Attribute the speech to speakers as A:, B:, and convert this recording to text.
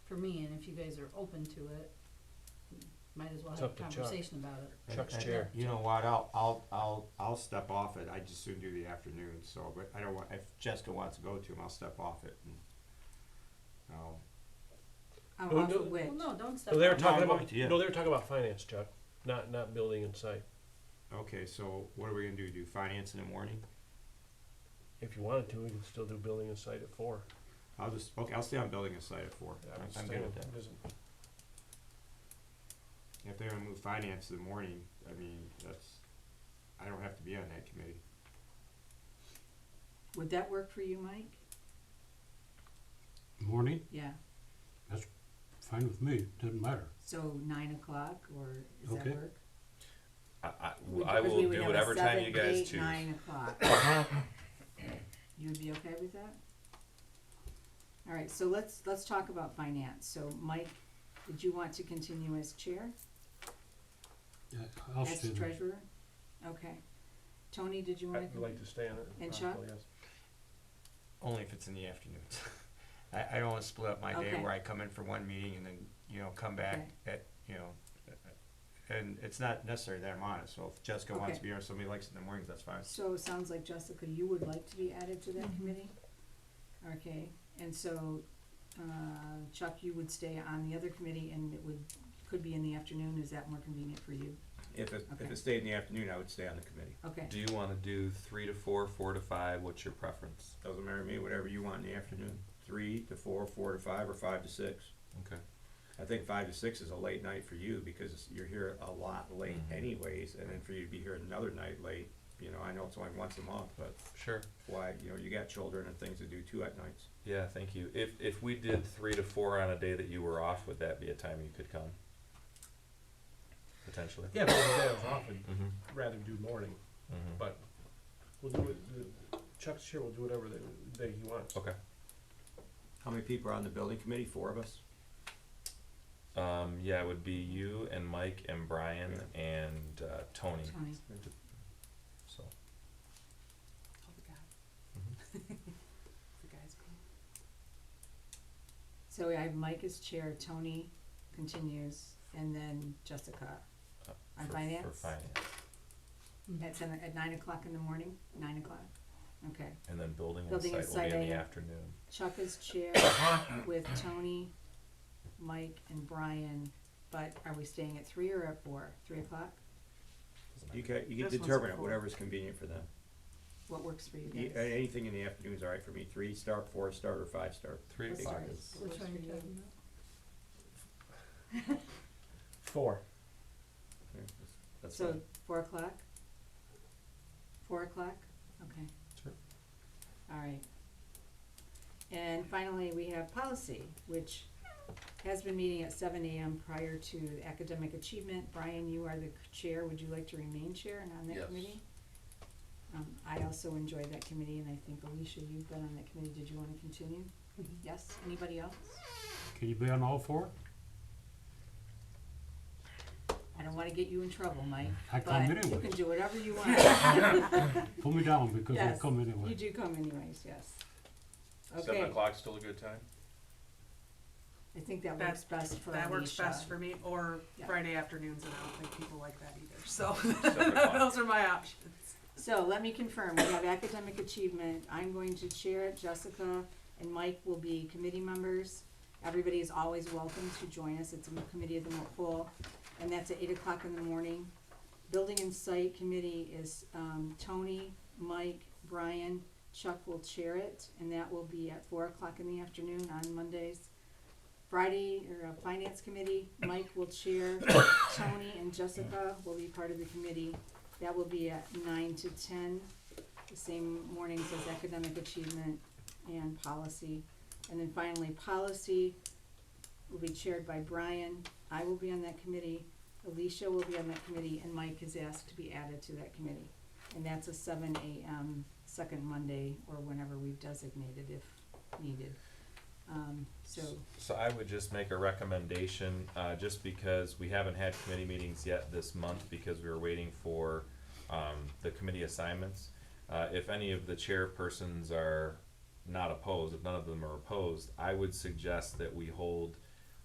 A: for me, and if you guys are open to it, might as well
B: It's
A: have a
B: up to Chuck.
A: conversation about it.
C: And-
B: Chuck's
C: and
B: chair.
C: You know what, I'll, I'll, I'll, I'll step off it, I just soon do the afternoon, so, but I don't want, if Jessica wants to go to him, I'll step off it and. um, I'll
D: I'm
B: Who
D: off
B: do-
D: of which.
A: Well, no, don't step
B: No, they were
A: on
C: No,
B: talking
C: I'm
B: about,
C: with you.
B: no, they were talking about finance, Chuck, not, not building and site.
C: okay, so what are we gonna do, do finance in the morning?
B: If you wanted to, we could still do building and site at four.
C: I'll just, okay, I'll stay on building a site at four,
B: That
C: I'm,
B: would
C: I'm
B: still-
C: good with that.
B: doesn't-
C: If they're gonna move finance in the morning, I mean, that's, I don't have to be on that committee.
D: Would that work for you, Mike?
E: Morning,
D: Yeah,
E: fine with me, doesn't matter.
D: so nine o'clock or does that
E: Okay.
D: work?
F: I, I,
D: We-
F: I
D: because we
F: will
D: would
F: do
D: have a
F: whatever time you
D: seven,
F: guys
D: eight,
F: choose. Uh-huh.
D: Nine o'clock. You'd be okay with that? All right, so let's, let's talk about finance. So Mike, did you want to continue as chair,
E: Yeah, I'll
D: as
E: stay there.
D: treasurer? Okay. Tony, did you wanna?
B: I'd like to stay on it. if
D: And
B: possible,
D: Chuck?
B: yes.
C: Only if it's in the afternoons. I, I don't wanna split up my day
D: Okay.
C: where I come in for one meeting and then, you know, come back at, you know, and it's not necessary that I'm on it, so if Jessica wants to
D: Okay.
C: be here, or somebody likes it in the mornings, that's fine.
D: So it sounds like Jessica, you would like to be added to that
A: Mhm.
D: committee? Okay, and so, uh, Chuck, you would stay on the other committee and it would, could be in the afternoon, is that more convenient for you?
C: If it,
D: Okay.
C: stayed in the afternoon, I would stay on the committee.
D: Okay,
F: Do you want to do three to four, four to five? What's your preference?
C: Doesn't matter to me, whatever you want in the afternoon, three to four, four to five, or five to six.
F: Okay.
C: I think five to six is a late night for you because you're here a lot late
F: Mhm.
C: anyways, and then for you to be here another night late, you know, I know it's only once a month, but
F: Sure.
C: why, you know, you got children and things to do too at nights.
F: Yeah, thank you. If if we did three to four on a day that you were off, would that be a time you could come? Potentially.
B: Yeah, but if I was off, I'd
F: Mm-hmm.
B: rather do morning,
F: Mm-hmm.
B: but we'll do it, the- Chuck's here, we'll do whatever they, they he wants.
F: Okay.
C: How many people are on the building committee? Four of us?
F: Um, yeah, it would be you and Mike and Brian and uh, Tony.
D: Tony,
F: So
D: oh the guy.
F: Mm-hmm.
D: The guy's cool. So I have Mike as chair, Tony continues, and then Jessica.
F: Uh,
D: On
F: for, for
D: finance?
F: finance,
D: At seven, at nine o'clock in the morning, nine o'clock, okay.
F: and then building,
D: Building and
F: and site
D: site
F: will be in the
D: AM.
F: afternoon.
D: Chuck is chair with Tony, Mike, and Brian, but are we staying at three or at four? Three o'clock?
F: Doesn't
C: You
F: matter.
C: can, you can
A: This one's
C: determine it,
A: full.
C: whatever's convenient for them.
D: What works for you
C: E-
D: guys?
C: Anything in the afternoon is all right for me. Three start, four start, or five start.
F: Three
D: Let's
F: o'clock
D: start.
F: is
A: Which one are you talking about?
B: Four.
C: Yeah, that's- That's
D: So,
C: fine.
D: four o'clock? Four o'clock? Okay.
F: Sure.
D: All right. And finally, we have policy, which has been meeting at seven AM prior to academic achievement. Brian, you are the c- chair. Would you like to remain chair and on that
G: Yes.
D: committee? Um, I also enjoyed that committee and I think Alicia, you've been on that committee. Did you wanna continue? Yes? Anybody else?
E: Can you be on all four?
D: I don't wanna get you in trouble, Mike,
E: I come
D: but you
E: anyway.
D: can do whatever you want.
E: Pull me down because I
D: Yes,
E: come
D: You
E: anyway.
D: do come anyways, yes.
G: Seven
D: Okay,
G: o'clock's still a good time?
D: I think that
H: That-
D: works best for
H: That works
D: Alicia.
H: best for me, or
D: Yeah.
H: Friday afternoons, and I don't think people like that either, so
G: Seven o'clock.
H: those are my options.
D: So let me confirm, we have academic achievement, I'm going to chair it, Jessica and Mike will be committee members. Everybody is always welcome to join us, it's a committee of the whole, and that's at eight o'clock in the morning. Building and Site Committee is, um, Tony, Mike, Brian, Chuck will chair it, and that will be at four o'clock in the afternoon on Mondays. Friday, or uh, Finance Committee, Mike will chair, Tony and Jessica will be part of the committee. That will be at nine to ten, the same mornings as academic achievement and policy. And then finally, policy will be chaired by Brian. I will be on that committee. Alicia will be on that committee, and Mike is asked to be added to that committee. And that's a seven AM, second Monday, or whenever we've designated if needed. Um, so,
F: So I would just make a recommendation, uh, just because we haven't had committee meetings yet this month because we were waiting for, um, the committee assignments. Uh, if any of the chairpersons are not opposed, if none of them are opposed, I would suggest that we hold